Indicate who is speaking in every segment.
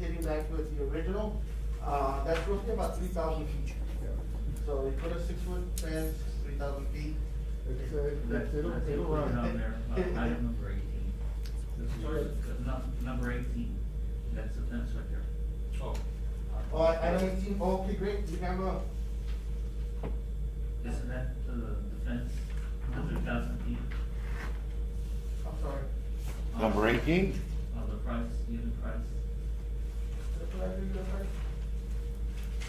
Speaker 1: heading back towards the original, uh, that's roughly about three thousand feet. So we put a six-foot fence, three thousand feet.
Speaker 2: It's a, it's a little.
Speaker 3: That's little road down there, uh, item number eighteen. The first, uh, num- number eighteen, that's the fence right there.
Speaker 4: Oh,
Speaker 1: Oh, I, I don't see, okay, great, you have a,
Speaker 3: Isn't that the, the fence, hundred thousand feet
Speaker 1: I'm sorry.
Speaker 5: Number eighteen?
Speaker 3: of the price, unit price?
Speaker 1: That's what I figured, I'm sorry.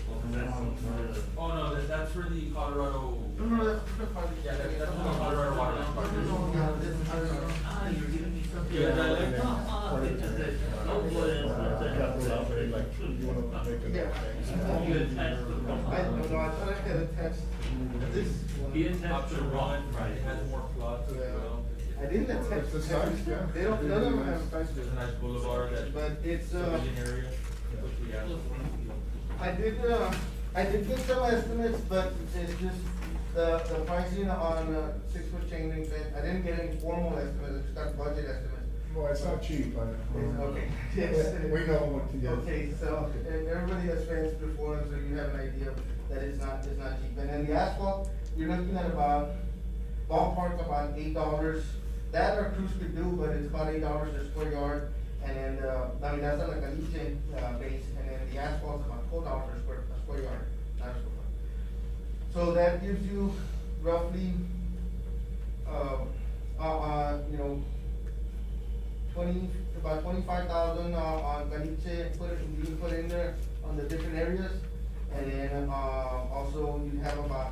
Speaker 3: Well, that's the-
Speaker 4: oh no, that, that's for the Colorado.
Speaker 1: No, no, that's the project.
Speaker 4: Yeah, that- that's not Colorado water.
Speaker 1: No, no, no, yeah, this is Colorado.
Speaker 3: Ah, you're giving me something.
Speaker 4: Yeah, that-
Speaker 3: No, ah, it's just that- no, well, it's not that. You attach the wrong-
Speaker 1: I, no, no, I thought I had attached this
Speaker 3: You
Speaker 1: one.
Speaker 3: attach the
Speaker 4: Option
Speaker 3: wrong-
Speaker 4: one, right, it has more plots as well.
Speaker 1: I didn't attach.
Speaker 2: It's the size, yeah.
Speaker 1: They don't, none of them have size.
Speaker 4: There's a nice boulevard that.
Speaker 1: But it's, uh,
Speaker 4: Civilian area, which we have.
Speaker 1: I did, uh, I did get some estimates, but it's just the, the pricing on uh six foot chain link fence, I didn't get any formal estimates, I just got budget estimates.
Speaker 2: Well, it's not cheap, I.
Speaker 1: It's okay, yes.
Speaker 2: We know what to get.
Speaker 1: Okay, so, and everybody has fenced before, so you have an idea that it's not, it's not cheap. And then the asphalt, you're looking at about, ballpark about eight dollars. That our crews could do, but it's about eight dollars a square yard. And then, uh, I mean, that's on a caliche, uh, base, and then the asphalt's about four dollars a square, a square yard, not a square foot. So that gives you roughly, uh, uh, uh, you know, twenty, about twenty-five thousand, uh, on Caliche, put it, you put in there on the different areas. And then, uh, also you have about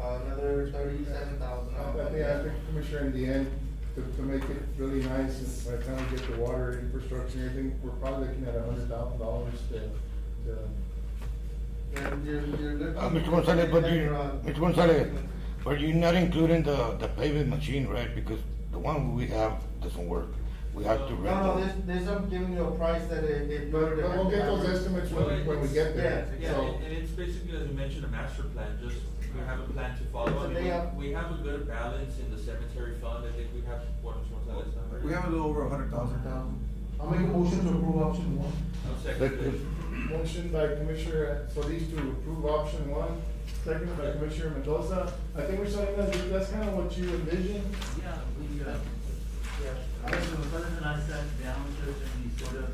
Speaker 1: uh, another thirty-seven thousand.
Speaker 2: I think, Uh, I think, Commissioner, in the end, to, to make it really nice, and by the time we get the water infrastructure and everything, we're probably looking at a hundred thousand dollars to, to.
Speaker 1: And you're, you're looking.
Speaker 5: Uh, Mr. Gonzalez, but you, Mr. Gonzalez, but you're not including the, the paving machine, right? Because the one we have doesn't work. We have to rent.
Speaker 1: No, no,
Speaker 5: it.
Speaker 1: this, this I'm giving you a price that it, it.
Speaker 2: But we'll get those estimates when, we- when we get there,
Speaker 1: Yeah,
Speaker 4: Yeah,
Speaker 2: so.
Speaker 4: and and it's basically, as you mentioned, a master plan, just, we have a plan to follow. I
Speaker 1: It's a
Speaker 4: mean,
Speaker 1: layout.
Speaker 4: We have a good balance in the cemetery fund, I think we have one, one, one, one.
Speaker 6: We have a little over a hundred thousand down. I'll make a motion to approve option one.
Speaker 4: I'll second it.
Speaker 2: Motion by Commissioner Solis to approve option one, seconded by Commissioner Mendoza. I think we're saying that, that's kind of what you envisioned,
Speaker 3: Yeah, we, uh, I
Speaker 1: Yeah.
Speaker 3: was with my brother and I sat down with him and he sort of,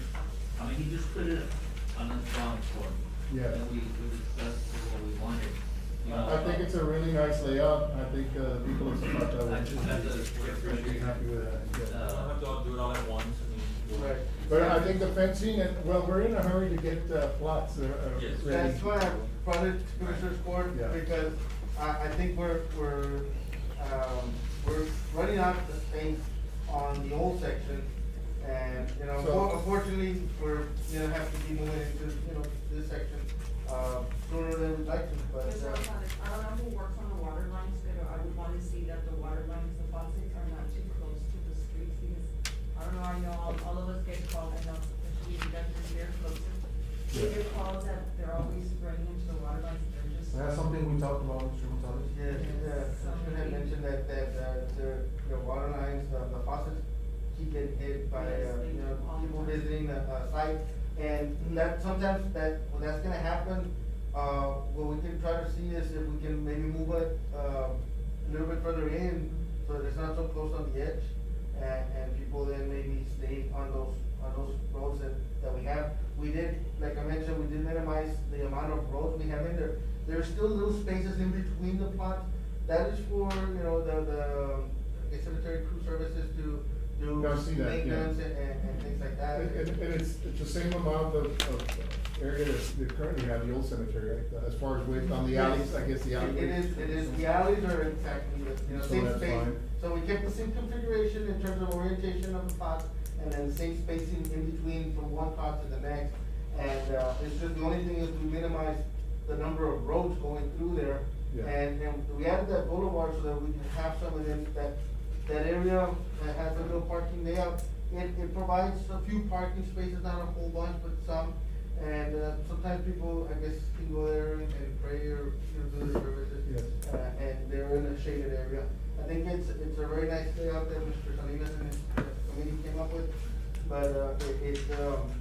Speaker 3: I mean, he just put it on the drawing board.
Speaker 2: Yeah.
Speaker 3: And we, we discussed what we wanted, you know.
Speaker 2: I think it's a really nice layout, I think, uh, people have thought that
Speaker 3: I just had to
Speaker 2: was. I'd be
Speaker 3: appreciate,
Speaker 2: happy with that, yeah.
Speaker 4: I don't have to all do it all at once, I mean. we'll-
Speaker 1: Right.
Speaker 2: But I think the fencing, and, well, we're in a hurry to get, uh, plots, uh, uh, ready.
Speaker 4: Yes.
Speaker 1: That's why I brought it to Commissioner's Court,
Speaker 2: Yeah.
Speaker 1: because I, I think we're, we're, um, we're running out of space on the old section. And, you know,
Speaker 2: So-
Speaker 1: for- unfortunately, we're, you know, have to be moving into, you know, this section, uh, sooner than we'd like to, but.
Speaker 7: Mr.
Speaker 1: uh,
Speaker 7: Gonzalez, I don't know who works on the water lines, but I would wanna see that the water lines, the faucets are not too close to the streets, because I don't know, I know all, all of us get called, I know, especially if you guys are very close. We
Speaker 2: Yeah.
Speaker 7: get calls that they're always running into the water lines, they're just.
Speaker 6: That's something we talked about, Mr. Gonzalez.
Speaker 1: Yeah, yeah, Commissioner had mentioned that, that, uh, the, the water lines, uh, the faucets keep getting hit by,
Speaker 7: Yes,
Speaker 1: uh,
Speaker 7: they
Speaker 1: you know,
Speaker 7: do.
Speaker 1: people visiting the, uh, site. And that, sometimes that, when that's gonna happen, uh, what we can try to see is if we can maybe move it, uh, a little bit further in, so that it's not so close on the edge. And, and people then maybe stay on those, on those roads that, that we have. We did, like I mentioned, we did minimize the amount of roads we have in there. There are still little spaces in between the plots. That is for, you know, the, the um, the cemetery crew services to do
Speaker 2: I've seen that, yeah.
Speaker 1: maintenance and, and and things like that.
Speaker 2: And, and- and it's, it's the same amount of, of area that they currently have, the old cemetery, right? As far as width on the alleys, I guess the
Speaker 1: It-
Speaker 2: alleys.
Speaker 1: It is, it is, the alleys are exactly the, you know,
Speaker 2: So
Speaker 1: same
Speaker 2: that's
Speaker 1: space.
Speaker 2: fine.
Speaker 1: So we kept the same configuration in terms of orientation of the plots and then same spacing in between from one plot to the next. And, uh, it's just, the only thing is we minimize the number of roads going through there.
Speaker 2: Yeah.
Speaker 1: And, and we added that boulevard so that we can have some of them, that, that area that has a little parking layout. It, it provides a few parking spaces, not a whole bunch, but some. And, uh, sometimes people, I guess, can go there and and pray or, you know, do their services.
Speaker 2: Yes.
Speaker 1: Uh, and they're in a shaded area. I think it's, it's a very nice layout that Mr. Salinas and his uh, committee came up with, but, uh, it, it, um,